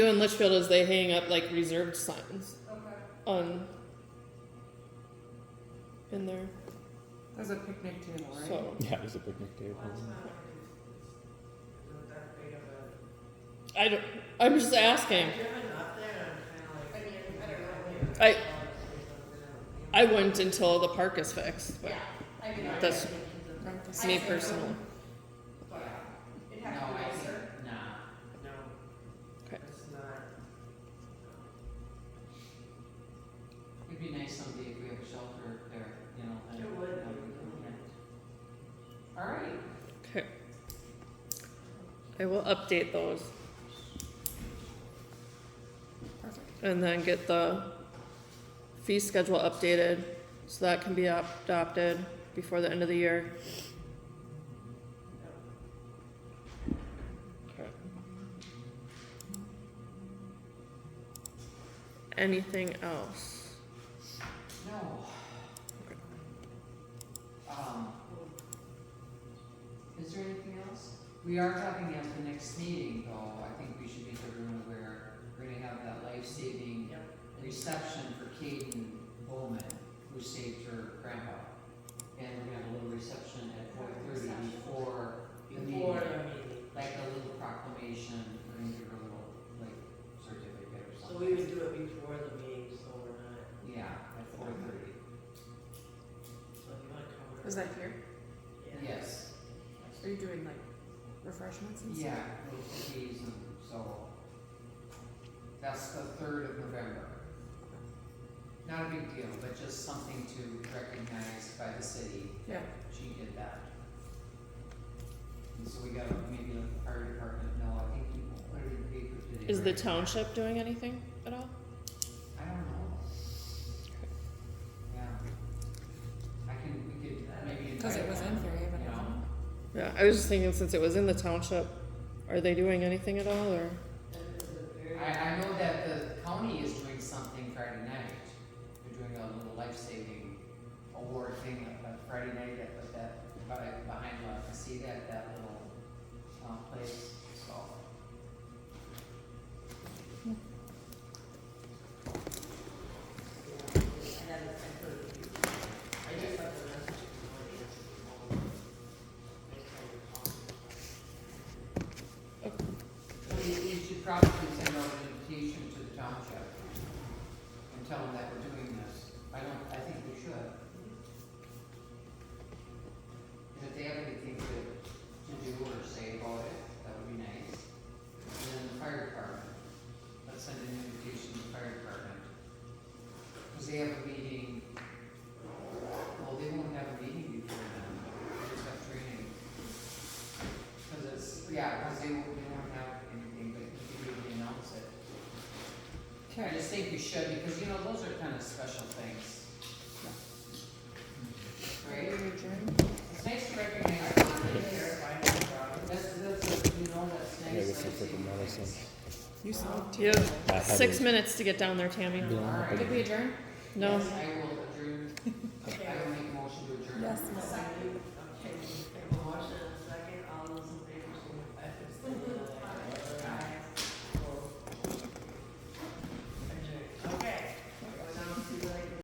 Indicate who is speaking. Speaker 1: do in Litchfield is they hang up like reserved signs on in there.
Speaker 2: There's a picnic table, right?
Speaker 1: So
Speaker 3: Yeah, there's a picnic table.
Speaker 1: I don't. I'm just asking. I I wouldn't until the park is fixed. But that's me personally.
Speaker 4: No, I think, nah. No.
Speaker 1: Okay.
Speaker 4: It's not. It'd be nice someday if we have a shelter there, you know. It would. All right.
Speaker 1: Okay. I will update those
Speaker 2: Perfect.
Speaker 1: and then get the fee schedule updated so that can be op- adopted before the end of the year. Okay. Anything else?
Speaker 4: No. Um, is there anything else? We are talking at the next meeting, though, I think we should make everyone aware, we're gonna have that life-saving reception for Kaden Bowman, who saved her grandpa. And we're gonna have a little reception at four thirty before the meeting. Like a little proclamation, we're gonna give her a little, like, certificate or
Speaker 5: So
Speaker 4: something.
Speaker 5: we would do it before the meeting, so we're not,
Speaker 4: Yeah, at four thirty.
Speaker 5: so if you wanna come.
Speaker 2: Is that here?
Speaker 5: Yeah.
Speaker 4: Yes.
Speaker 2: Are you doing like refreshments and
Speaker 4: Yeah,
Speaker 2: stuff?
Speaker 4: little cookies and so. That's the third of November. Not a big deal, but just something to recognize by the city,
Speaker 2: Yeah.
Speaker 4: she did that. And so we gotta maybe let the fire department know, I think we put it in the paper today.
Speaker 1: Is the
Speaker 4: right?
Speaker 1: township doing anything at all?
Speaker 4: I don't know. Yeah. I can, we could maybe.
Speaker 2: Because it
Speaker 4: invite
Speaker 2: was in
Speaker 4: them,
Speaker 2: theory, but
Speaker 4: you
Speaker 2: it
Speaker 4: know?
Speaker 2: wasn't.
Speaker 1: Yeah, I was just thinking since it was in the township, are they doing anything at all or?
Speaker 5: And it's a very-
Speaker 4: I, I know that the county is doing something Friday night. They're doing a little life-saving award thing on Friday night at, at that, by- behind La Casita, at that little, um, place, so.
Speaker 5: I had a temporary- I just got the message this morning, it's all- it's all
Speaker 4: So you, you should probably send out an invitation to the township and tell them that we're doing this. I don't, I think we should. And if they have anything to, to do or say about it, that would be nice. And then the fire department, let's send an invitation to the fire department. Cause they have a meeting, well, they won't have a meeting before then, they just have training. Cause it's, yeah, cause they won't, they won't have anything, but you can really announce it. I just think you should, because you know, those are kind of special things. Right? It's nice to recognize. That's, that's, you know, that's nice.
Speaker 3: Yeah, this
Speaker 4: like,
Speaker 3: is like a medicine.
Speaker 2: You smoked.
Speaker 1: You have
Speaker 3: I had
Speaker 1: six
Speaker 3: it.
Speaker 1: minutes to get down there, Tammy.
Speaker 3: Yeah.
Speaker 4: All right.
Speaker 2: Did we adjourn?
Speaker 1: No.
Speaker 4: Yes, I will adjourn. I will